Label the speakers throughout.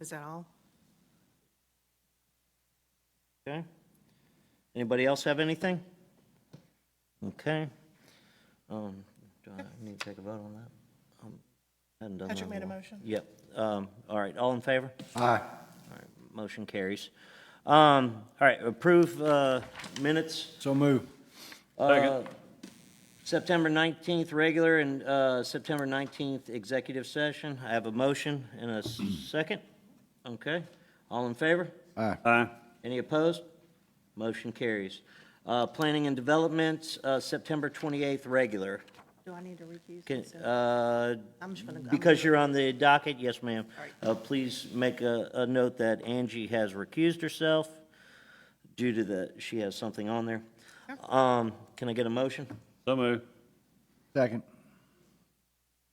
Speaker 1: Is that all?
Speaker 2: Okay. Anybody else have anything? Okay. Um, do I need to take a vote on that? Um, Hadn't done that.
Speaker 1: Patrick
Speaker 2: in
Speaker 1: made a
Speaker 2: while.
Speaker 1: motion.
Speaker 2: Yep. Um, all right, all in favor?
Speaker 3: Aye.
Speaker 2: All right, motion carries. Um, all right, approve, uh, minutes,
Speaker 3: So move.
Speaker 2: uh, September 19th, regular, and, uh, September 19th, executive session. I have a motion and a s- second. Okay, all in favor?
Speaker 3: Aye.
Speaker 4: Aye.
Speaker 2: Any opposed? Motion carries. Uh, Planning and Development, uh, September 28th, regular.
Speaker 1: Do I need to recuse?
Speaker 2: Can-
Speaker 1: myself?
Speaker 2: uh,
Speaker 1: I'm just gonna. I'm
Speaker 2: Because you're on the docket, yes, ma'am.
Speaker 1: All right.
Speaker 2: Uh, Please make a a note that Angie has recused herself due to the, she has something on there. Um, Can I get a motion
Speaker 4: So moved.
Speaker 3: Second.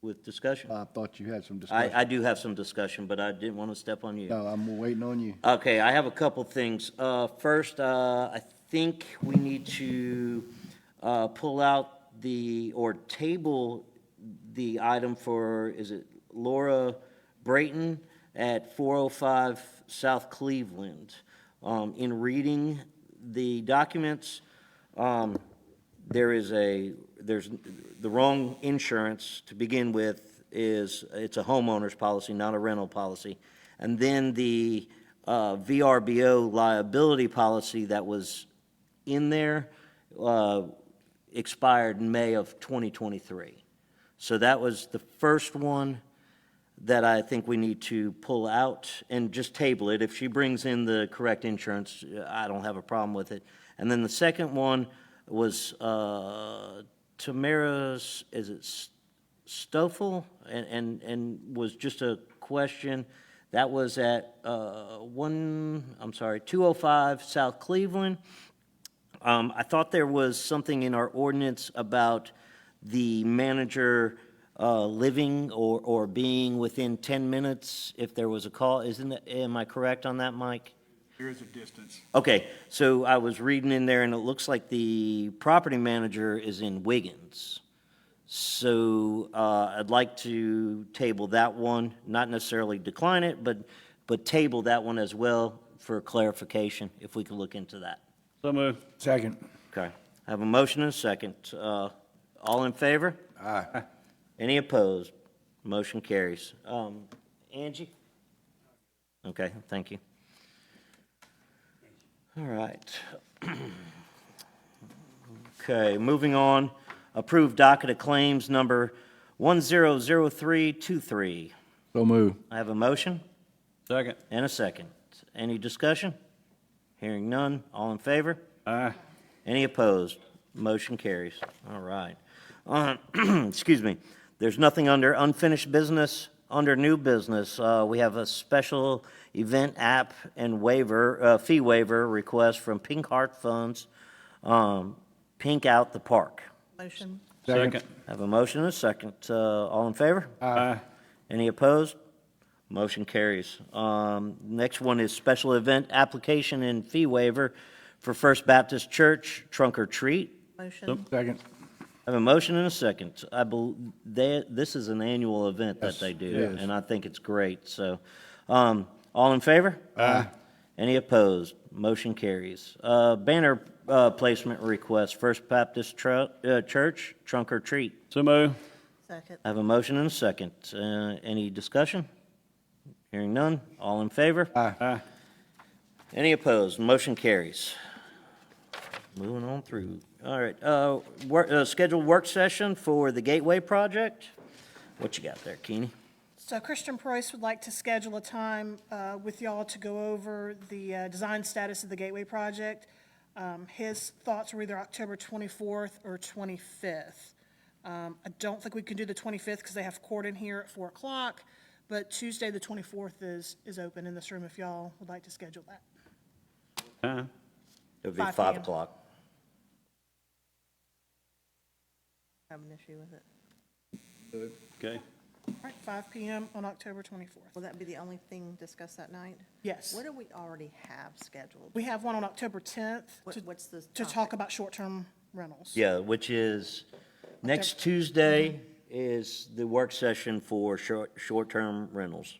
Speaker 2: with discussion?
Speaker 3: I thought you had some Uh, discussion.
Speaker 2: I I do have some discussion, but I didn't want to step on you.
Speaker 3: No, I'm waiting on you.
Speaker 2: Okay, I have a couple things. Uh, First, uh, I think we need to uh, pull out the, or table the item for, is it Laura Brayton at 405 South Cleveland? Um, In reading the documents, um, there is a, there's, the wrong insurance to begin with is, it's a homeowner's policy, not a rental policy. And then the uh, VRBO liability policy that was in there uh, expired in May of 2023. So that was the first one that I think we need to pull out and just table it. If she brings in the correct insurance, I don't have a problem with it. And then the second one was uh, Tamara's, is it S- Stoffel? And, and, and was just a question. That was at uh, one, I'm sorry, 205 South Cleveland. Um, I thought there was something in our ordinance about the manager uh, living or, or being within 10 minutes if there was a call. Isn't, that- am I correct on that, Mike?
Speaker 5: There is a distance.
Speaker 2: Okay, so I was reading in there, and it looks like the property manager is in Wiggins. So uh, I'd like to table that one, not necessarily decline it, but, but table that one as well for clarification, if we could look into that.
Speaker 4: So moved.
Speaker 3: Second.
Speaker 2: Okay, I have a motion and a second. Uh, All in favor?
Speaker 3: Aye.
Speaker 2: Any opposed? Motion carries. Um, Angie? Okay, thank you. All right. Okay, moving on. Approved docket of claims number 100323.
Speaker 3: So move.
Speaker 2: I have a motion
Speaker 4: Second.
Speaker 2: and a second. Any discussion? Hearing none. All in favor?
Speaker 4: Aye.
Speaker 2: Any opposed? Motion carries. All right. Uh, Excuse me. There's nothing under unfinished business, under new business. Uh, We have a special event app and waiver, uh, fee waiver request from Pink Heart Funds, um, Pink Out the Park.
Speaker 1: Motion.
Speaker 4: Second.
Speaker 2: Have a motion and a second. Uh, All in favor?
Speaker 4: Aye.
Speaker 2: Any opposed? Motion carries. Um, Next one is special event application and fee waiver for First Baptist Church Trunk or Treat. Oh.
Speaker 1: Motion.
Speaker 3: Second.
Speaker 2: I have a motion and a second. I bel, they, this is an annual event that
Speaker 3: Yes,
Speaker 2: they
Speaker 3: it
Speaker 2: do,
Speaker 3: is.
Speaker 2: and I think it's great, so. Um, all in favor? Aye. Any opposed? Motion carries. Uh, banner, uh, placement request, First Baptist Tru, uh, Church, trunk or treat.
Speaker 4: So moved.
Speaker 1: Second.
Speaker 2: I have a motion and a second. Uh, any discussion? Hearing none. All in favor?
Speaker 4: Aye.
Speaker 2: Any opposed? Motion carries. Moving on through. All right, uh, work, uh, scheduled work session for the Gateway Project. What you got there, Keeney?
Speaker 6: So Christian Price would like to schedule a time uh, with y'all to go over the uh, design status of the Gateway Project. Um, His thoughts were either October 24th or 25th. Um, I don't think we can do the 25th because they have court in here at 4 o'clock, but Tuesday, the 24th is, is open in this room if y'all would like to schedule that.
Speaker 4: Aye.
Speaker 2: It'll be
Speaker 6: 5
Speaker 2: five
Speaker 6: p.m.
Speaker 2: o'clock.
Speaker 1: I have an issue with it.
Speaker 4: Okay.
Speaker 6: All right, 5 PM on October 24th.
Speaker 1: Will that be the only thing discussed that night?
Speaker 6: Yes.
Speaker 1: What do we already have scheduled?
Speaker 6: We have one on October 10th
Speaker 1: What-
Speaker 6: to-
Speaker 1: what's the
Speaker 6: to
Speaker 1: topic?
Speaker 6: talk about short-term rentals.
Speaker 2: Yeah, which is, next Tuesday is the work session for short, short-term rentals.